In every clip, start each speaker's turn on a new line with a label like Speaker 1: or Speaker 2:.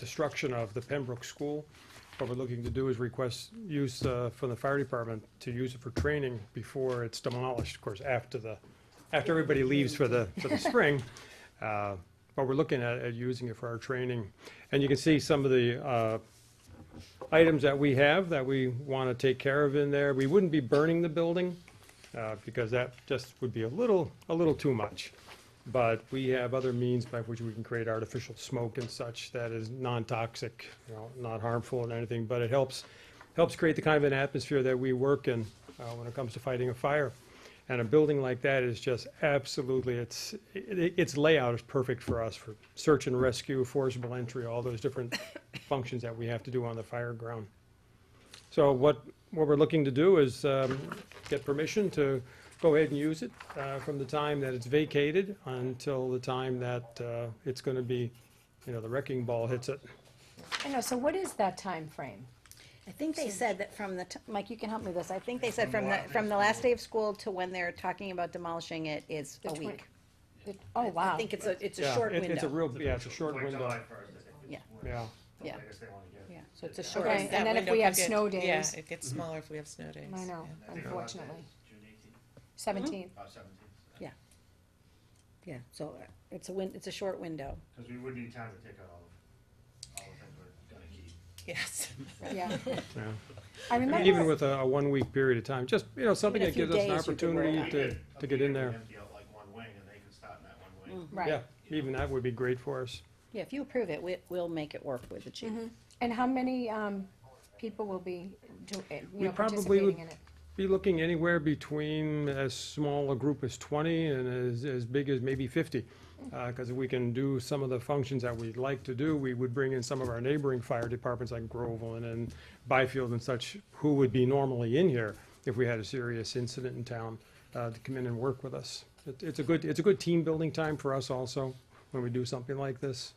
Speaker 1: destruction of the Pembroke School. What we're looking to do is request use uh, from the fire department to use it for training before it's demolished, of course, after the, after everybody leaves for the, for the spring. Uh, But we're looking at, at using it for our training. And you can see some of the uh, items that we have that we want to take care of in there. We wouldn't be burning the building uh, because that just would be a little, a little too much. But we have other means by which we can create artificial smoke and such that is non-toxic, you know, not harmful and anything, but it helps, helps create the kind of an atmosphere that we work in uh, when it comes to fighting a fire. And a building like that is just absolutely, it's, it- its layout is perfect for us for search and rescue, forcible entry, all those different functions that we have to do on the fire ground. So what, what we're looking to do is um, get permission to go ahead and use it uh, from the time that it's vacated until the time that uh, it's going to be, you know, the wrecking ball hits it.
Speaker 2: I know, so what is that time frame?
Speaker 3: I think they said that from the, t- Mike, you can help me with this, I think they said from the, from the last day of school to when they're talking about demolishing it is
Speaker 2: The
Speaker 3: a
Speaker 2: twen-
Speaker 3: week.
Speaker 2: The- Oh,
Speaker 3: I
Speaker 2: wow.
Speaker 3: think it's a, it's a
Speaker 1: Yeah,
Speaker 3: short
Speaker 1: it- It's a
Speaker 3: window,
Speaker 1: real, yeah, it's a short
Speaker 4: Like
Speaker 1: window,
Speaker 4: July first, I think. is
Speaker 3: Yeah.
Speaker 4: when
Speaker 1: yeah.
Speaker 4: the
Speaker 3: Yeah.
Speaker 4: latest they wanna get it.
Speaker 3: yeah, so it's a
Speaker 4: Yeah.
Speaker 3: short,
Speaker 2: Okay.
Speaker 3: window.
Speaker 2: and then if we have snow days-
Speaker 5: Yeah, it gets smaller if we have snow days.
Speaker 2: I know,
Speaker 4: I think our last day
Speaker 2: unfortunately.
Speaker 4: is June eighteenth,
Speaker 2: Seventeenth,
Speaker 4: uh, seventeenth,
Speaker 3: yeah, so uh, it's a win, it's a short window.
Speaker 4: cause we would need time to take out all of, all the things we're gonna keep.
Speaker 5: yeah.
Speaker 3: Mm-hmm.
Speaker 5: Yes.
Speaker 2: yeah.
Speaker 1: Yeah.
Speaker 2: I
Speaker 1: I mean, Even
Speaker 2: remember,
Speaker 1: with a, a one-week period of time, just, you know, something
Speaker 3: Even a
Speaker 1: that
Speaker 3: few
Speaker 1: gives us an
Speaker 3: days you could work
Speaker 1: opportunity
Speaker 4: We
Speaker 1: to,
Speaker 4: could-
Speaker 1: to get in
Speaker 4: we could
Speaker 1: there.
Speaker 4: Empty out like one wing and they could start in that one
Speaker 3: Mm-hmm.
Speaker 4: wing.
Speaker 1: Yeah,
Speaker 2: right,
Speaker 1: even that would be great for us.
Speaker 3: Yeah, if you approve it, we, we'll make it work with the chief.
Speaker 2: and how many, um, people will be, do, eh,
Speaker 1: We
Speaker 2: you know,
Speaker 1: probably
Speaker 2: participating
Speaker 1: would-
Speaker 2: in it?
Speaker 1: Be looking anywhere between as small a group as 20 and as, as big as maybe 50. Because if we can do some of the functions that we'd like to do, we would bring in some of our neighboring fire departments like Groveland and Byfield and such, who would be normally in here if we had a serious incident in town, uh, to come in and work with us. It- It's a good, it's a good team-building time for us also, when we do something like this.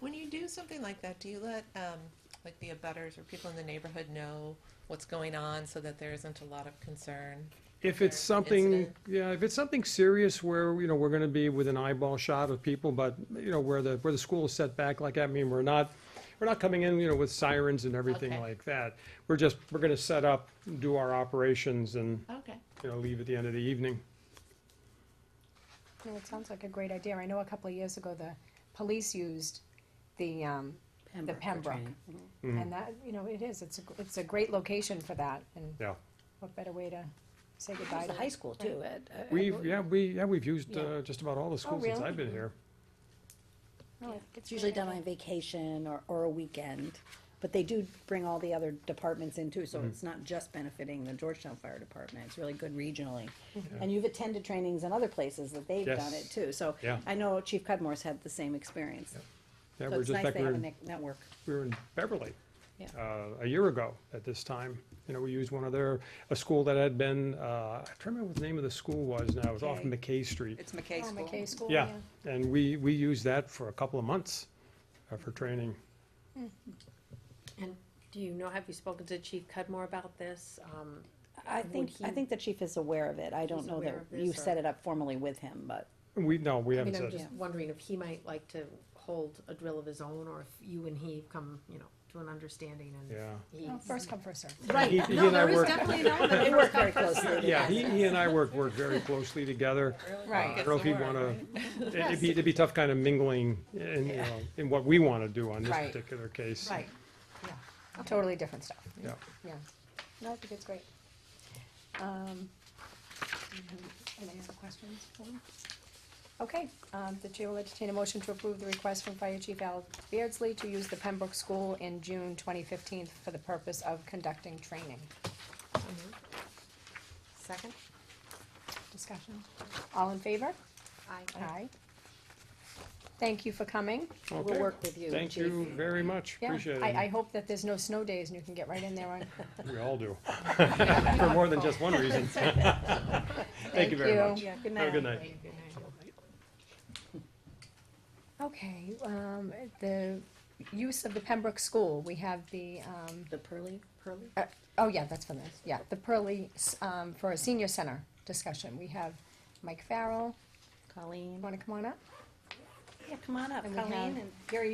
Speaker 5: When you do something like that, do you let um, like the abutters or people in the neighborhood know what's going on so that there isn't a lot of concern?
Speaker 1: If it's
Speaker 5: Or
Speaker 1: something,
Speaker 5: incident.
Speaker 1: yeah, if it's something serious where, you know, we're gonna be with an eyeball shot of people, but, you know, where the, where the school is set back like that, I mean, we're not, we're not coming in, you know, with sirens and everything
Speaker 5: Okay.
Speaker 1: like that. We're just, we're gonna set up, do our operations and,
Speaker 5: Okay.
Speaker 1: you know, leave at the end of the evening.
Speaker 2: No, it sounds like a great idea. I know a couple of years ago, the police used the, um, the
Speaker 3: for
Speaker 2: Pembroke.
Speaker 3: training.
Speaker 1: Mm-hmm.
Speaker 2: And that, you know, it is, it's a, it's a great location for that, and
Speaker 1: Yeah.
Speaker 2: what better way to say
Speaker 3: It
Speaker 2: goodbye
Speaker 3: was the
Speaker 2: to
Speaker 3: high
Speaker 2: it?
Speaker 3: school too, uh, Ed. I- I
Speaker 1: We've,
Speaker 3: believe-
Speaker 1: yeah, we, yeah, we've used,
Speaker 3: Yeah. Oh,
Speaker 1: uh, just about all the schools since
Speaker 2: really?
Speaker 1: I've been here.
Speaker 2: No, I think
Speaker 3: It's usually
Speaker 2: great.
Speaker 3: done on vacation or, or a weekend, but they do bring all the other departments in too,
Speaker 1: Mm-hmm.
Speaker 3: so it's not just benefiting the Georgetown Fire Department, it's really good regionally. And you've attended trainings in other places that they've done
Speaker 1: Mm-hmm. Yes.
Speaker 3: it too, so
Speaker 1: Yeah.
Speaker 3: I know Chief Cudmore's had the same experience.
Speaker 1: Yeah,
Speaker 3: So
Speaker 1: we're
Speaker 3: it's
Speaker 1: just
Speaker 3: nice
Speaker 1: back
Speaker 3: they
Speaker 1: we're
Speaker 3: have a
Speaker 1: in-
Speaker 3: ne- network.
Speaker 1: we were in Beverly
Speaker 3: Yeah.
Speaker 1: uh, a year ago at this time. You know, we used one of their, a school that had been, uh, I can't remember what the name of the school was now, it was off
Speaker 5: Okay.
Speaker 1: McKay Street.
Speaker 5: It's McKay
Speaker 2: Oh, McKay School,
Speaker 1: Yeah,
Speaker 2: yeah.
Speaker 1: and we, we used that for a couple of months uh, for training.
Speaker 6: And do you know, have you spoken to Chief Cudmore about this? Um,
Speaker 3: I
Speaker 6: Would
Speaker 3: think, I
Speaker 6: he-
Speaker 3: think the chief is aware of it, I don't
Speaker 6: He's
Speaker 3: know that
Speaker 6: aware of
Speaker 3: you
Speaker 6: this,
Speaker 3: set
Speaker 6: or-
Speaker 3: it up formally with him, but
Speaker 1: We, no, we
Speaker 6: I
Speaker 1: haven't
Speaker 6: mean, I'm
Speaker 1: said,
Speaker 6: just wondering if he might like to hold a drill of his own, or if you and he have come, you know, to an understanding and.
Speaker 1: yeah.
Speaker 6: he-
Speaker 3: Oh.
Speaker 2: Well, First come, first served.
Speaker 1: He-
Speaker 6: Right,
Speaker 1: he
Speaker 6: no,
Speaker 1: and I
Speaker 6: there is
Speaker 1: work-
Speaker 6: definitely an element
Speaker 3: they
Speaker 6: of
Speaker 3: work
Speaker 6: first
Speaker 3: very
Speaker 6: come, first
Speaker 3: closely
Speaker 6: served.
Speaker 1: Yeah, he, he and I work, work very closely together.
Speaker 2: Right.
Speaker 1: I don't know if you'd
Speaker 5: Gets the
Speaker 1: wanna,
Speaker 5: word,
Speaker 1: it'd be, it'd be tough kind of mingling in, you know, in what we wanna do on this
Speaker 2: Right.
Speaker 1: particular case.
Speaker 2: Right, yeah, totally different stuff,
Speaker 1: Yeah.
Speaker 2: yeah. No, I think it's great. Um, Any other questions? for him? Okay, um, the chair will entertain a motion to approve the request from Fire Chief Al Beardsley to use the Pembroke School in June twenty fifteen for the purpose of conducting training.
Speaker 5: Second?
Speaker 2: Discussion, all in favor?
Speaker 6: Aye.
Speaker 2: Aye. Thank you for coming.
Speaker 3: we'll
Speaker 1: Okay.
Speaker 3: work with you,
Speaker 1: Thank
Speaker 3: chief.
Speaker 1: you very much,
Speaker 2: Yeah,
Speaker 1: appreciate it.
Speaker 2: I, I hope that there's no snow days and you can get right in there on.
Speaker 1: We all do. For more than just one reason. Thank you very much.
Speaker 3: Yeah,
Speaker 1: Have
Speaker 3: good
Speaker 1: a
Speaker 3: night.
Speaker 1: good night.
Speaker 2: Okay, um, the use of the Pembroke School, we have the, um,
Speaker 3: The Pearly, Pearly?
Speaker 2: uh, oh yeah, that's for this, yeah, the Pearly, s- um, for a senior center discussion. We have Mike Farrell,
Speaker 3: Colleen?
Speaker 2: wanna come on up?
Speaker 3: Yeah, come on up,
Speaker 2: And we have-
Speaker 3: Colleen and Gary